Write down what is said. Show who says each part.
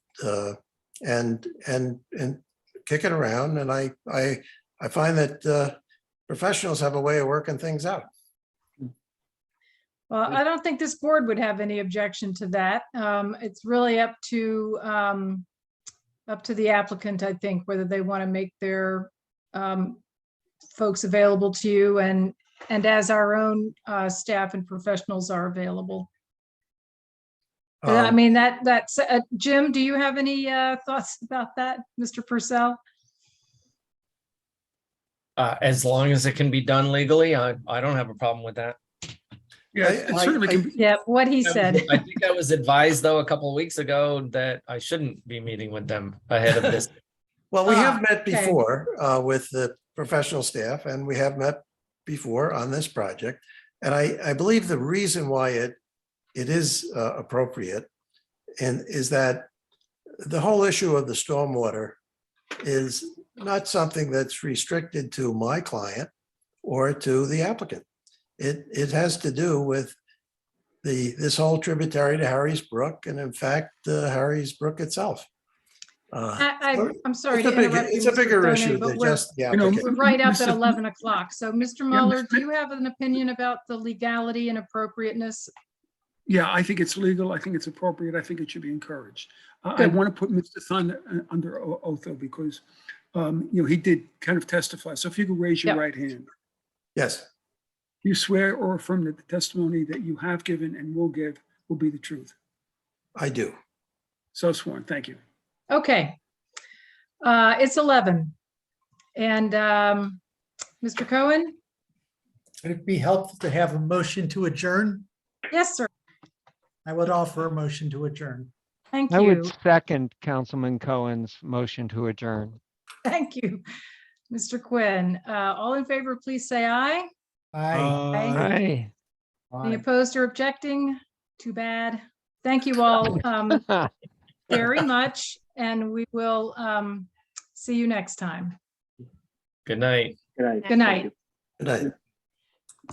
Speaker 1: uh, and, and, and kick it around. And I, I, I find that uh, professionals have a way of working things out.
Speaker 2: Well, I don't think this board would have any objection to that. Um, it's really up to, um, up to the applicant, I think, whether they want to make their, um, folks available to you and, and as our own, uh, staff and professionals are available. But I
Speaker 1: Um,
Speaker 2: mean, that, that's, uh, Jim, do you have any, uh, thoughts about that, Mr. Purcell?
Speaker 3: Uh, as long as it can be done legally, I, I don't have a problem with that.
Speaker 4: Yeah,
Speaker 1: I-
Speaker 4: it
Speaker 1: I-
Speaker 4: certainly
Speaker 1: I-
Speaker 4: can, be-
Speaker 2: Yeah, what he said.
Speaker 3: I think I was advised though, a couple of weeks ago that I shouldn't be meeting with them ahead of this.
Speaker 1: Well, we
Speaker 2: Ah,
Speaker 1: have met
Speaker 2: okay.
Speaker 1: before uh, with the professional staff and we have met before on this project. And I, I believe the reason why it, it is uh, appropriate and is that the whole issue of the stormwater is not something that's restricted to my client or to the applicant. It, it has to do with the, this whole tributary to Harry's Brook and in fact, uh, Harry's Brook itself. Uh,
Speaker 2: I, I, I'm sorry
Speaker 1: it's a
Speaker 2: to
Speaker 1: big,
Speaker 2: interrupt you.
Speaker 1: it's a
Speaker 2: Mr.
Speaker 1: bigger
Speaker 2: Donay,
Speaker 1: issue
Speaker 2: but
Speaker 1: than
Speaker 2: we're-
Speaker 1: just the
Speaker 4: you know,
Speaker 1: applicant.
Speaker 2: We're right up at
Speaker 4: Mr.
Speaker 2: 11 o'clock. So Mr. Mueller,
Speaker 4: Mr.
Speaker 2: do you have an opinion about the legality and appropriateness?
Speaker 4: yeah, I think it's legal. I think it's appropriate. I think it should be encouraged. I, I
Speaker 2: Good.
Speaker 4: want to put Mr. Thun uh, under o- oath though, because, um, you know, he did kind of testify. So if you could raise your
Speaker 2: Yep.
Speaker 4: right hand.
Speaker 1: Yes,
Speaker 4: Do You swear or affirm that the testimony that you have given and will give will be the truth.
Speaker 1: I do.
Speaker 4: So sworn, thank you.
Speaker 2: Okay. Uh, It's 11. And um, Mr. Cohen?
Speaker 5: Would it be helpful to have a motion to adjourn?
Speaker 2: Yes, sir.
Speaker 5: I would offer a motion to adjourn.
Speaker 2: Thank
Speaker 6: I would
Speaker 2: you.
Speaker 6: second Councilman Cohen's motion to adjourn.
Speaker 2: Thank you. Mr. Quinn, Uh, all in favor, please say aye. Aye.
Speaker 6: Aye.
Speaker 2: Any opposed or objecting? Too bad. Thank you all um, very much, and we will um, see you next time.
Speaker 3: Good night.
Speaker 2: Good night.
Speaker 1: Good night.